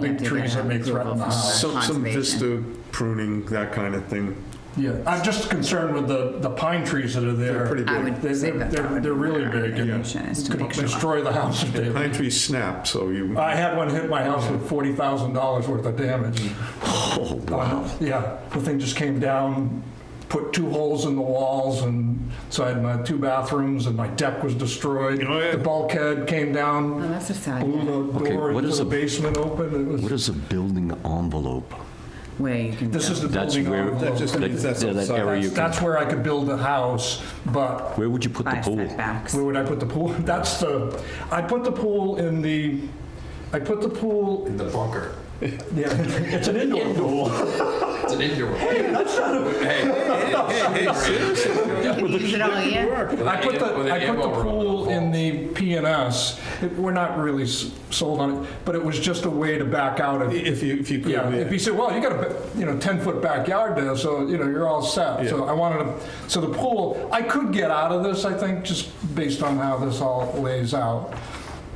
big to trees get that may approval threaten the from house. Some, some Conservation. vista pruning, that kind of thing. Yeah, I'm just concerned with the, the pine trees that are there. They're pretty I big. They- would say they're- that that they're- would be they're really my big, yeah. recommendation, is to Could make sure. destroy the house if they, Pine trees snap, so you, I had one hit my house with forty thousand dollars worth of damage. oh, Uh, wow. Yeah, the thing just came down, put two holes in the walls, and so I had my two bathrooms, and my deck was destroyed. Oh, yeah. The bulkhead came down, Oh, that's a sad, blew the Okay, door what into is the a- basement open, it What is was, a building envelope? where you can. this go. is the That's building where- envelope. That just means that's Yeah, that outside. area- you That's, can- that's where I could build a house, but Where would you put the Five pool? setbacks. where would I put the pool? That's the, I put the pool in the, I put the pool, in the bunker. yeah, it's an indoor pool. It's an indoor. Hey, that's not a. Hey, hey, hey, You use it all year. I put With the, an I put the ammo room pool in on the the PNS. It- We're not really s- sold on it, but it was just a way to back out of, If you, if you could, yeah. If you yeah. said, well, you got a, you know, 10-foot backyard there, so, you know, you're all set. So I wanted to, so the pool, I could get out of this, I think, just based on how this all lays out.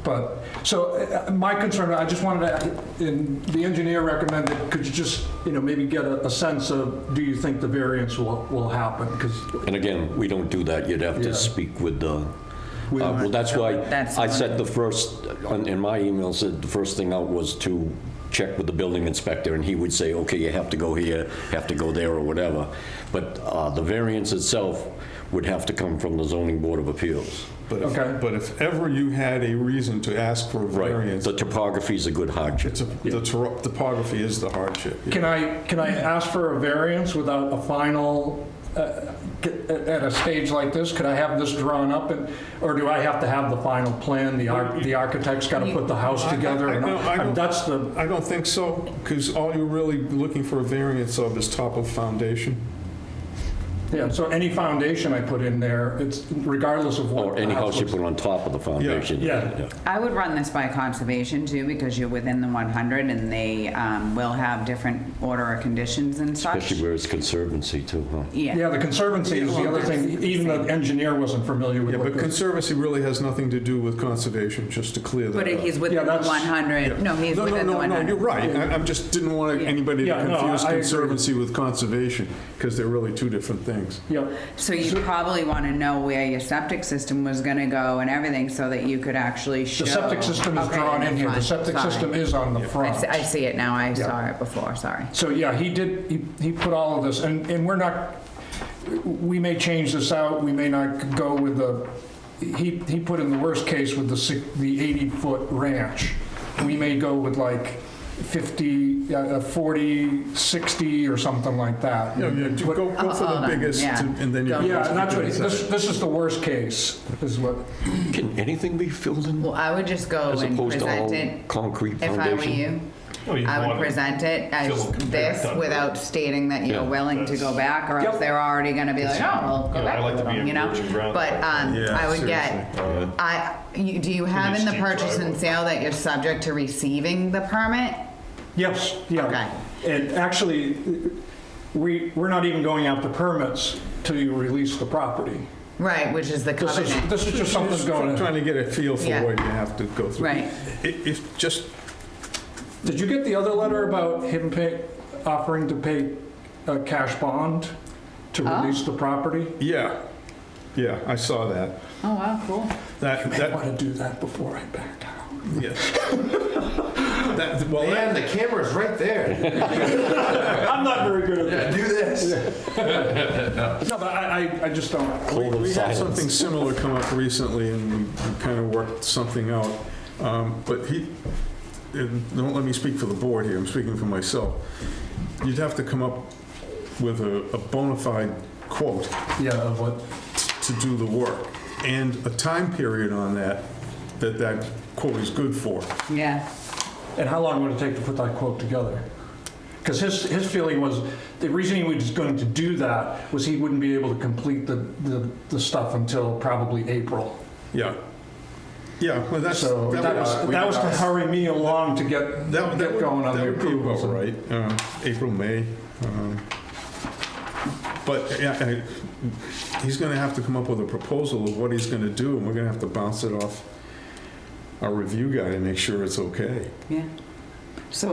But, so uh, my concern, I just wanted to, and the engineer recommended, could you just, you know, maybe get a a sense of, do you think the variance will, will happen? Because And again, we don't do that. You'd have Yeah. to speak with the, uh, well, that's why That's I the said one. the first, on- in my email said the first thing out was to check with the building inspector, and he would say, okay, you have to go here, have to go there, or whatever. But uh, the variance itself would have to come from the zoning board of appeals. But Okay. if, but if ever you had a reason to ask for a variance, The topography is a good hardship. it's a- the toro- topography is the hardship. Can I, can I ask for a variance without a final, uh, c- at a stage like this? Could I have this drawn up, and, or do I have to have the final plan? The ar- the architect's got to put the house together? I- I and know, I and know. That's the, I don't think so, because all you're really looking for a variance of is top of foundation. yeah, so any foundation I put in there, it's regardless of what. Or the any house you looks- put on top of the foundation. Yeah. I would run this by conservation too, because you're within the 100 and they um, will have different order of conditions and such. Especially where it's conservancy too, huh? Yeah, the conservancy is the other thing, even the engineer wasn't familiar with Yeah, what but the. conservancy really has nothing to do with conservation, just to clear that But up. he's Yeah, within the that's- 100, no, he's No, no, within the no, no, 100. you're right. I I'm just, didn't want Yeah. anybody to Yeah, no, confuse I- I agree. conservancy with conservation, because they're really two different things. Yep. So you probably want to know where your septic system was going to go and everything so that you could actually show. The septic system is Okay, drawn in here. The front, septic sorry. system is on the I front. see- I see it now, I saw it before, sorry. So, yeah, he did, he, he put all of this, and, and we're not, we may change this out, we may not go with the, he, he put in the worst case with the six, the 80-foot ranch. We may go with like 50, uh, 40, 60, or something like that. No, you do- go, go for Oh, the oh, biggest, yeah. and and then you. Go. Yeah, and that's what, Yeah. this, this is the worst case, is what, Can anything be filled in Well, I would just go as and opposed to present all it. concrete If I were foundation? you, Well, you'd I would want to present it as fill it compared this to- without stating that you're Yeah. willing to go back, or else Yep. they're already gonna be like, oh, well, Yeah, go I like to back, be in you know? virgin ground. But, um, Yeah, I would get, seriously. I, you- do you have Pretty in the steep purchase and driveway. sale that you're subject to receiving the permit? Yes, yeah. And actually, we, we're not even going out to permits till you release the property. Right, which is the This is, covenant. this is just something Just going in. Trying to get a feel for Yeah. what you have to go through. Right. I- If, just, Did you get the other letter about him pay, offering to pay a cash bond to release the property? yeah, yeah, I saw that. Oh, wow, cool. That, I that, want to do that before I back out. yeah. That, well, that- Man, the camera's right there. I'm not very good at Yeah, that. do this. No, but I, I, I just don't. Code of We had silence. something similar come up recently, and we kind of worked something out. Um, But he, and don't let me speak for the board here, I'm speaking for myself. You'd have to come up with a a bona fide quote Yeah, of what? to do the work, and a time period on that, that that quote is good for. Yeah. And how long would it take to put that quote together? Because his, his feeling was, the reason he was going to do that was he wouldn't be able to complete the, the, the stuff until probably April. Yeah. Yeah, well, that's, that So that was, was, that was to hurry me along to get, that that get would, going on that the would be approvals. about right, uh, April, May. um, But, yeah, I- he's gonna have to come up with a proposal of what he's gonna do, and we're gonna have to bounce it off our review guy to make sure it's okay. Yeah. So